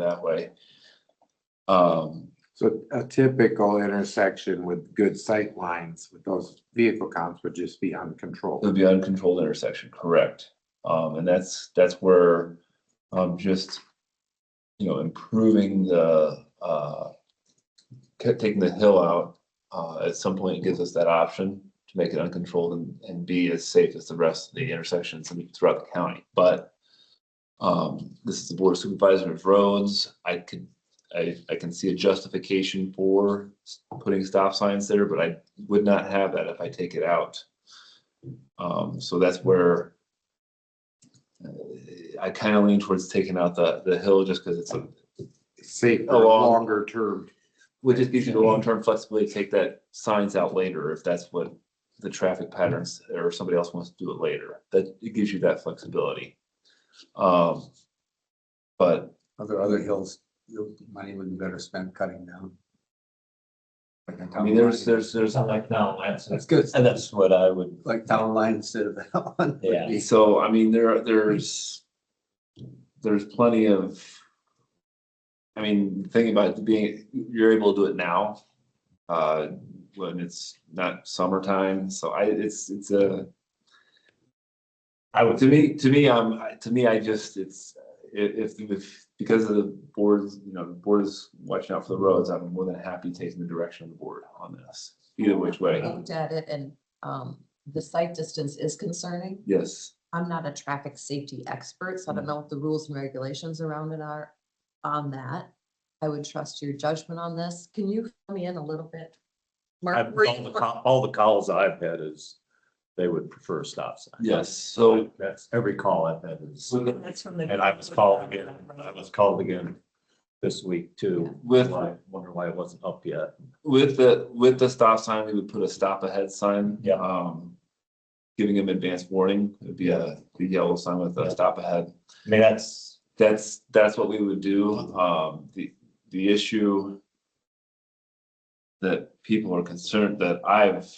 that way. Um, So a typical intersection with good sight lines with those vehicle counts would just be it would uncontrolled. be uncontrolled intersection, correct? Um, and that's, that's where, um, just, you know, improving the, uh, ca- taking the hill out, uh, at some point gives us that option to make it uncontrolled and, and be as safe as the rest of the intersections in- throughout the county, but um, this is the Board of Supervisors of Roads. I could, I, I can see a justification for s- putting stop signs there, but I would not have that if I take it out. Um, so that's where uh, I kind of lean towards taking out the, the hill just because it's, a- Safer, Along- longer term. would just give you the long-term flexibility, to take that signs out later if that's what the traffic patterns or somebody else wants to do it later. That, it gives you that flexibility. Um, but Are there other hills, your money would be better spent cutting down? Like on I town mean, there's, line. there's, there's, Sound like now, that's, That's good, and that's what I would, like town line instead of that one. would Yeah. be- so, I mean, there, there's, there's plenty of, I mean, the thing about it being, you're able to do it now, uh, when it's not summertime, so I, it's, it's a, I would, to me, to me, um, I- to me, I just, it's, if, if- if, because of the boards, you know, the board is watching out for the roads, I'm more than happy taking the direction of the board on this, either which way, looked at it and um, the sight distance is concerning. yes. I'm not a traffic safety expert, so I Mm. don't know what the rules and regulations around it are on that. I would trust your judgment on this. Can you fill me in a little bit? Mark, I've, were all the, you- call- all the calls I've had is, they would prefer a stop sign. Yes, so, That's every call I've had is, so the- That's from the. and I was called again, I was called again this week too. with, Why- Wonder why it wasn't up yet. with the, with the stop sign, we would put a stop ahead sign. Yeah. Um, giving them advance warning, it'd be a, the yellow sign with a Yeah. stop ahead. I mean, that's, that's, that's what we would do. Um, the, the issue that people are concerned, that I've,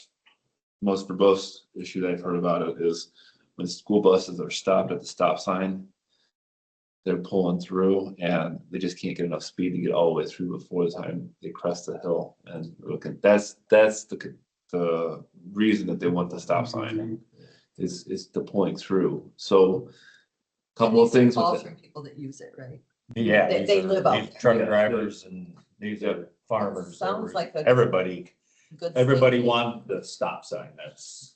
most verbose issue that I've heard about it is when school buses are stopped at the stop sign, they're pulling through and they just can't get enough speed to get all the way through before the time they crest the hill. And look, at- that's, that's the, c- the reason that they want the stop sign is, is the pulling through. So couple of things with Calls it. from people that use it, right? yeah. They- these they are- live out these there. Truck Yeah. drivers and these are farmers. Sounds like a- everybody, Good everybody safety. wanted the stop sign. That's.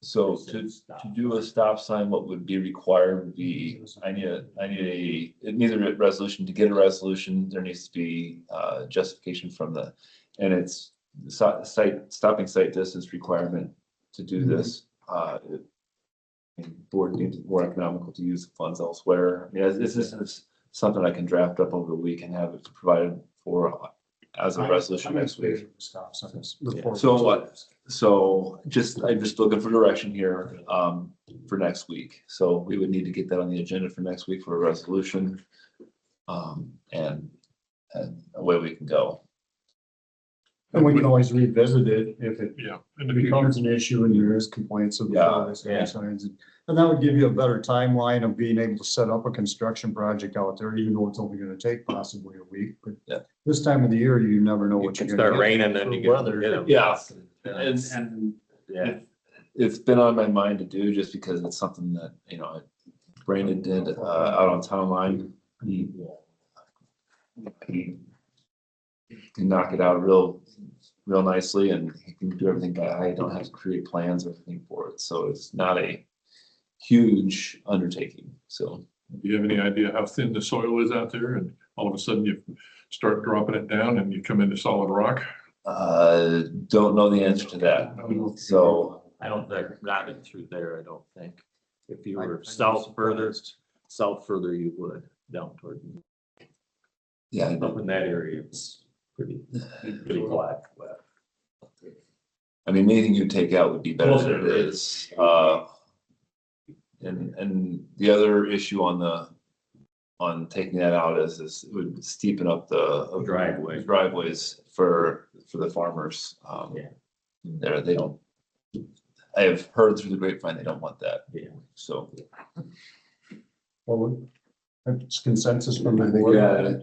So to, to do a stop sign, what would be required would be, I need a, I need a, it needs a resolution, to get a resolution, there needs to be, uh, justification from the, and it's so- site, stopping site distance requirement to do this, uh, it- and board needs it more economical to use the funds elsewhere. I mean, this this is something I can draft up over the week and have it provided for uh, as a resolution next week. Stop signs. So what? So just, I'm just looking for direction here um for next week. So we would need to get that on the agenda for next week for a resolution. Um, and and away we can go. And we can always revisit it if it becomes an issue and there is complaints of the Yeah, fire escape yeah. signs. And and that would give you a better timeline of being able to set up a construction project out there, even though it's only gonna take possibly a week, but Yeah. this time of the year, you never know what It you're can gonna start get. raining then you get. Weather. get 'em. Yeah. And That's- and Yeah. it's been on my mind to do just because it's something that, you know, Brandon did uh out on town line. He he can knock it out real, real nicely and he can do everything by eye. Don't have to create plans or anything for it. So it's not a huge undertaking. So Do you have any idea how thin the soil is out there? And all of a sudden you start dropping it down and you come into solid rock? uh don't know the answer to that. So I don't, think not in through there, I don't think. If you I- were I'm south surprised. further, south further, you would down toward, yeah, I up know. in that area, it's pretty, pretty black. but- I mean, anything you take out would be better than it is. Uh, And, and the other issue on the, on taking that out is, is it would steepen up the. uh, Driveway. Driveways for, for the farmers. Um, Yeah. There, they don't, I have heard through the grapevine, they don't want that. Yeah. So. Well, we- It's consensus from the I think board. yeah,